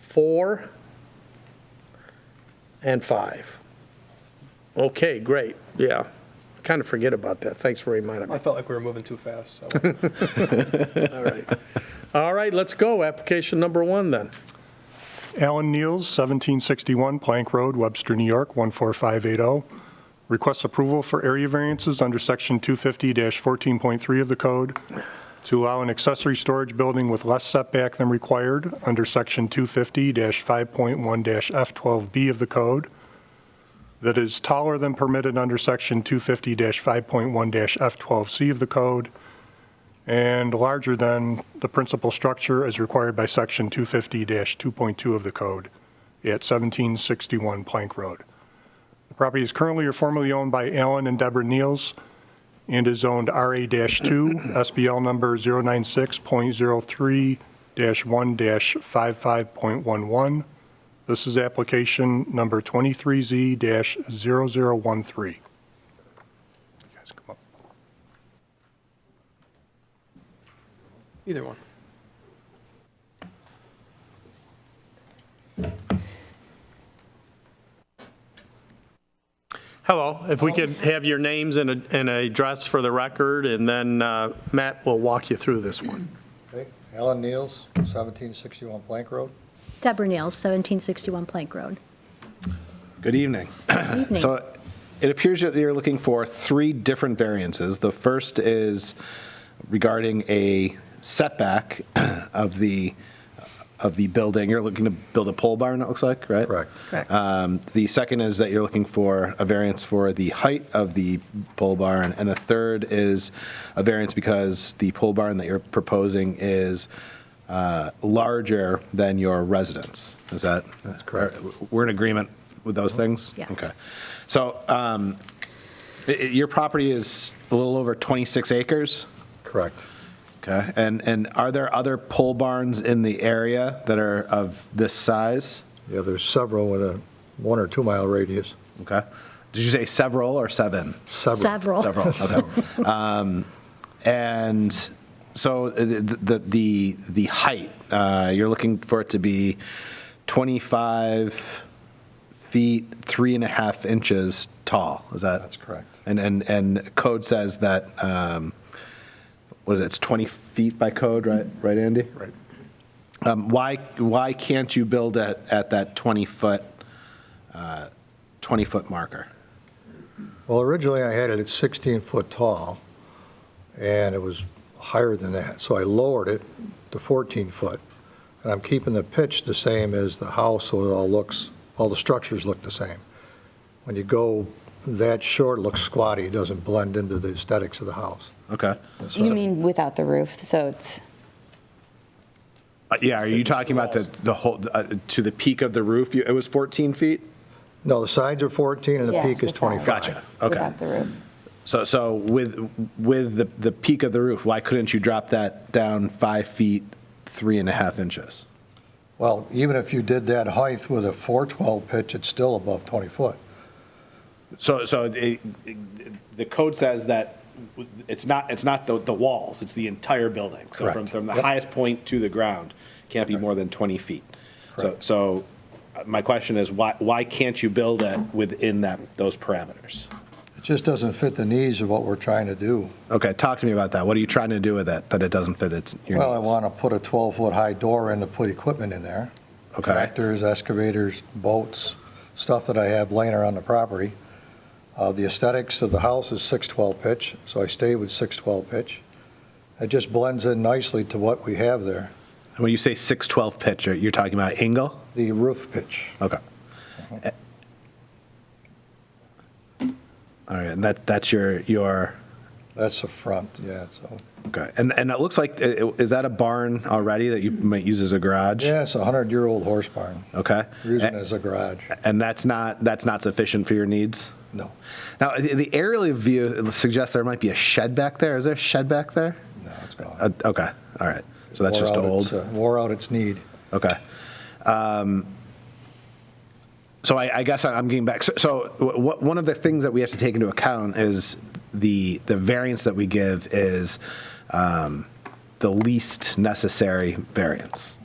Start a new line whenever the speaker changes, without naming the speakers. four, and five. Okay, great, yeah. Kind of forget about that, thanks for reminding me.
I felt like we were moving too fast, so.
All right. All right, let's go, application number one then.
Alan Neals, 1761 Plank Road, Webster, New York, 14580. oh. Requests approval for area variances under Section 250-14.3 of the code to allow an accessory storage building with less setback than required under Section 250-5.1-F12B of the code that is taller than permitted under Section 250-5.1-F12C of the code and larger than the principal structure as required by Section 250-2.2 of the code at 1761 Plank Road. The property is currently or formerly owned by Alan and Deborah Neals and is zoned RA-2, SBL number 096.03-1-55.11. This is application number 23Z-0013. You guys come up.
Either one.
Hello, if we could have your names and a, and a address for the record, and then uh, Matt will walk you through this one.
Okay, Alan Neals, 1761 Plank Road.
Deborah Neals, 1761 Plank Road.
Good evening.
Evening.
So it appears that you're looking for three different variances. The first is regarding a setback of the, of the building. You're looking to build a pole barn, it looks like, right?
Correct.
Correct.
Um, The second is that you're looking for a variance for the height of the pole barn. And the third is a variance because the pole barn that you're proposing is uh, larger than your residence. Is that? That's
correct.
We're in agreement with those things?
Yes.
Okay. So um, i- i- your property is a little over 26 acres?
Correct.
Okay. And, and are there other pole barns in the area that are of this size?
Yeah, there's several with a one or two mile radius.
Okay. Did you say several or seven?
Several.
Several.
Several. Okay. um, and so uh, the the the, the height uh, you're looking for it to be 25 feet three and a half inches tall. Is that?
That's correct.
And and and code says that um, what is it? It's 20 feet by code, right? Right, Andy. Right. Um, why why can't you build at at that 20 foot uh, 20 foot marker?
Well, originally I had it at 16 foot tall, and it was higher than that, so I lowered it to 14 foot. And I'm keeping the pitch the same as the house, so it all looks, all the structures look the same. When you go that short, it looks squatty, it doesn't blend into the aesthetics of the house.
Okay.
You mean without the roof, so it's,
Uh, Yeah, are you talking about the, the whole, uh, to the peak of the roof? You- It was 14 feet?
No, the sides are 14 and the
Yeah,
peak is
the sides.
25.
Gotcha, okay.
without the roof?
So, so with, with the, the peak of the roof, why couldn't you drop that down five feet, three and a half inches?
Well, even if you did that height with a 412 pitch, it's still above 20 foot.
So, so it- it- the code says that it's not, it's not the, the walls, it's the entire building. So from,
Correct.
from the
Yep.
highest point to the ground, can't be more than 20 feet. So,
Correct.
so uh, my question is, why, why can't you build it within that, those parameters?
It just doesn't fit the needs of what we're trying to do.
Okay, talk to me about that. What are you trying to do with it, that it doesn't fit its, your
Well, I
needs?
want to put a 12-foot high door in to put equipment in there.
Okay.
Tractors, excavators, boats, stuff that I have laying around the property. Uh, The aesthetics of the house is 612 pitch, so I stay with 612 pitch. It just blends in nicely to what we have there,
And When you say 612 pitch, you're- you're talking about angle?
the roof pitch.
Okay.
Uh-huh.
Eh. All right, and that, that's your, your,
That's the front, yeah, so.
okay. And, and it looks like, eh, eh, is that a barn already that you might use as a garage?
Yeah, it's a 100-year-old horse barn.
Okay.
We're Using it
Eh,
as a garage,
And that's not, that's not sufficient for your needs?
no.
Now, the the aerial view suggests there might be a shed back there. Is there a shed back there?
No, it's gone.
Uh, Okay, all right. So that's
Wore
just
out its,
old?
uh, Wore out its need.
Okay. Um, So I I guess I'm getting back, so- so wh- wh- one of the things that we have to take into account is the, the variance that we give is um, the least necessary variance.